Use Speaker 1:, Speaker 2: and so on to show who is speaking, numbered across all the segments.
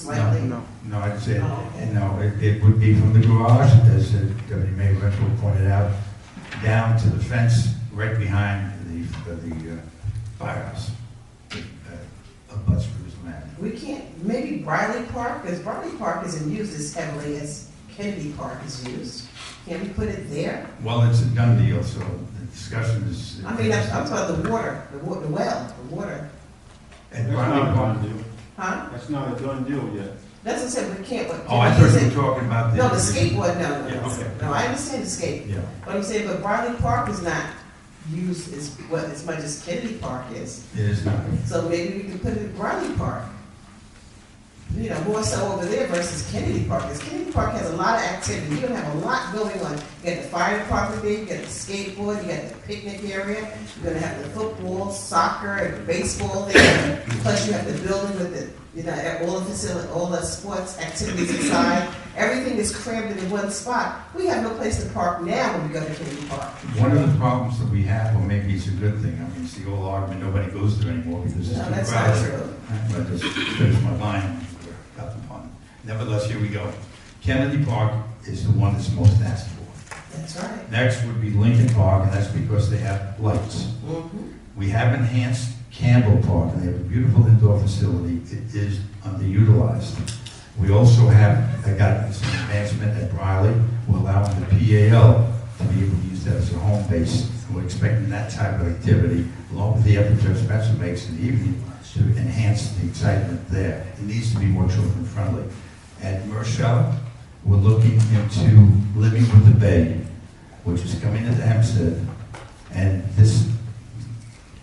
Speaker 1: slightly?
Speaker 2: No,
Speaker 3: No, it's, it-
Speaker 1: Oh,
Speaker 3: no, it- it would be from the garage, as uh, Deputy Mayor Renfro pointed out, down to the fence right behind the, the uh, firehouse, uh, abuts Jerusalem
Speaker 1: We
Speaker 3: Avenue.
Speaker 1: can't, maybe Briley Park, because Briley Park isn't used as heavily as Kennedy Park is used. Can we put it there?
Speaker 3: Well, it's a done deal, so the discussion is.
Speaker 1: I mean, I'm I'm talking about the water, the wa, the well, the water,
Speaker 3: At
Speaker 4: That's
Speaker 3: Briley
Speaker 4: not a
Speaker 3: Park.
Speaker 4: done deal.
Speaker 1: huh?
Speaker 4: That's not a done deal yet.
Speaker 1: That's what I said, we can't, but.
Speaker 3: Oh, I
Speaker 1: can we
Speaker 3: thought you
Speaker 1: use
Speaker 3: were
Speaker 1: it?
Speaker 3: talking about the.
Speaker 1: No, the skateboard, no, no,
Speaker 3: Yeah, okay.
Speaker 1: no, no, I understand the skate,
Speaker 3: Yeah,
Speaker 1: but I'm saying, but Briley Park is not used as, well, as much as Kennedy Park is.
Speaker 3: it is not.
Speaker 1: So maybe we could put it in Briley Park. You know, more so over there versus Kennedy Park, because Kennedy Park has a lot of activity, you have a lot going on. You got the fire department there, you got the skateboard, you got the picnic area, you're gonna have the football, soccer, and baseball there. Plus you have the building with the, you know, at all the facility, all the sports activities inside, everything is crammed into one spot. We have no place to park now when we go to Kennedy Park.
Speaker 3: One of the problems that we have, or maybe it's a good thing, I mean, it's the old argument, nobody goes there anymore because it's too
Speaker 1: No,
Speaker 3: crowded.
Speaker 1: that's not true.
Speaker 3: I just finished my line, we're up upon. Nevertheless, here we go. Kennedy Park is the one that's most asked for.
Speaker 1: That's right.
Speaker 3: Next would be Lincoln Park, and that's because they have lights.
Speaker 1: Mhm.
Speaker 3: We have enhanced Campbell Park, and they have a beautiful indoor facility. It is underutilized. We also have, I got some advancement at Briley, we're allowing the PAL to be able to use that as a home base. We're expecting that type of activity, along with the effort Judge Spencer makes in the evening, to enhance the excitement there. It needs to be more children-friendly. At Marshall, we're looking into Living with the Bay, which is coming into Hempstead. And this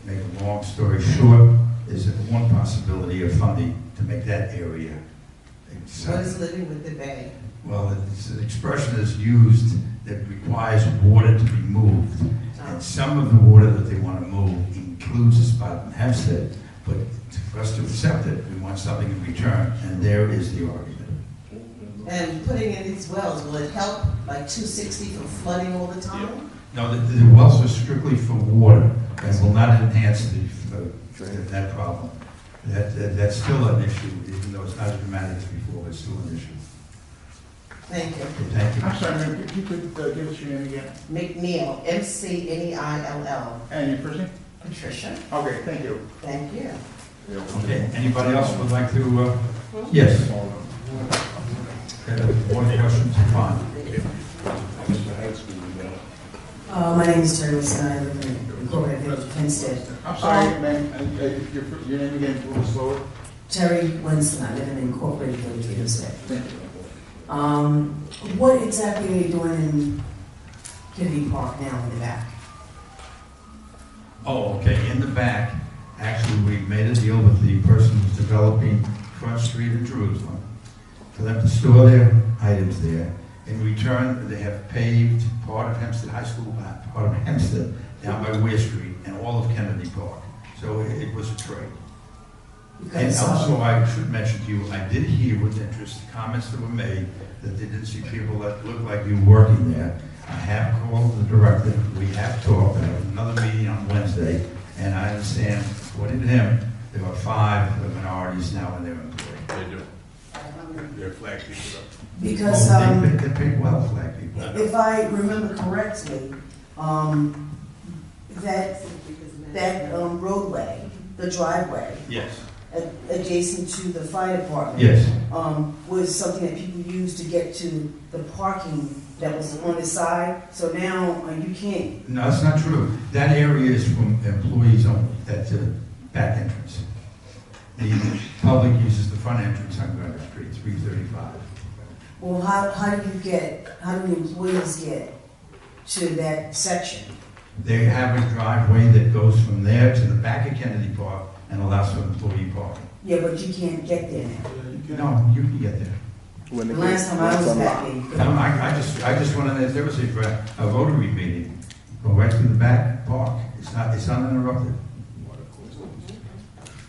Speaker 3: make a long story short, is that one possibility of funding to make that area.
Speaker 1: What
Speaker 3: accept-
Speaker 1: is living with the bay?
Speaker 3: Well, it's an expression that's used that requires water to be moved.
Speaker 1: Um,
Speaker 3: And some of the water that they want to move includes a spot in Hempstead, but for us to accept it, we want something in return, and there is the argument.
Speaker 1: And putting in these wells, will it help like two sixty from flooding all the time?
Speaker 3: No, the, the wells are strictly for water and will not enhance the, uh, that problem. That, that- that's still an issue, even though it's not as dramatic as before, it's still an issue.
Speaker 1: Thank you.
Speaker 3: So Thank you.
Speaker 4: I'm sorry, ma'am, if you could uh, give us your name again
Speaker 1: McNeil, M C N E I L L.
Speaker 4: and your first name?
Speaker 1: Patricia,
Speaker 4: Okay, thank you.
Speaker 1: thank you.
Speaker 3: Okay, anybody else would like to, uh, yes? Okay, One question, fine.
Speaker 5: Uh, my name is Terry Wilson, I live in Gloria Village, Hempstead.
Speaker 4: I'm sorry, ma'am, uh, uh, your fir- your name again, a little slower.
Speaker 5: Terry Winston, I live in Incorporated Village, Hempstead.
Speaker 4: Thank you.
Speaker 5: Um, what exactly are you doing in Kennedy Park now in the back?
Speaker 3: Oh, okay, in the back, actually, we made a deal with the person who's developing Front Street in Jerusalem for them to store their items there. In return, they have paved part of Hempstead High School, uh, part of Hempstead, down by Weir Street, and all of Kennedy Park. So it it was a trade. And
Speaker 5: Because, uh,
Speaker 3: also, I should mention to you, I did hear with interest the comments that were made, that they didn't see people that looked like you working there. I have called the director, we have talked, I have another meeting on Wednesday, and I understand, according to him, there are five minorities now in their employ.
Speaker 6: They do. They're flag people
Speaker 5: because,
Speaker 3: Oh,
Speaker 5: um,
Speaker 3: They they- they pay well, black people.
Speaker 5: if I remember correctly, um, that, that um, roadway, the driveway,
Speaker 3: Yes,
Speaker 5: a- adjacent to the fire department.
Speaker 3: yes.
Speaker 5: um, was something that people used to get to the parking that was on the side. So now uh, you can't,
Speaker 3: No, that's not true. That area is from employees only, that's a back entrance. The public uses the front entrance on Granite Street, 335.
Speaker 5: well, how, how do you get, how do the employees get to that section?
Speaker 3: They have a driveway that goes from there to the back of Kennedy Park and allows for employee parking.
Speaker 5: Yeah, but you can't get there
Speaker 4: Uh,
Speaker 5: now.
Speaker 3: No, you can get there.
Speaker 5: The last time I was back there, you
Speaker 3: No,
Speaker 5: couldn't.
Speaker 3: I, I just, I just wanted, to- there was a, a Rotary meeting, go right through the back park. It's not, it's uninterrupted.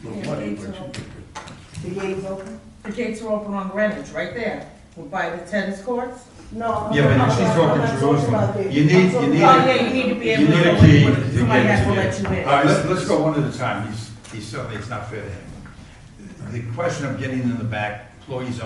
Speaker 5: the gate was open?
Speaker 7: The gates are open on Greenwich, right there, by the tennis courts.
Speaker 5: No.
Speaker 3: Yeah, but she's talking Jerusalem. You need, you
Speaker 7: Oh,
Speaker 3: need.
Speaker 7: yeah, you need to be able to.
Speaker 3: You need a key. to
Speaker 7: Somebody
Speaker 3: get
Speaker 7: has to
Speaker 3: in.
Speaker 7: let you in.
Speaker 3: All right, let's, let's go one at a time. He's, he's certainly, it's not fair to him. The question of getting in the back, employees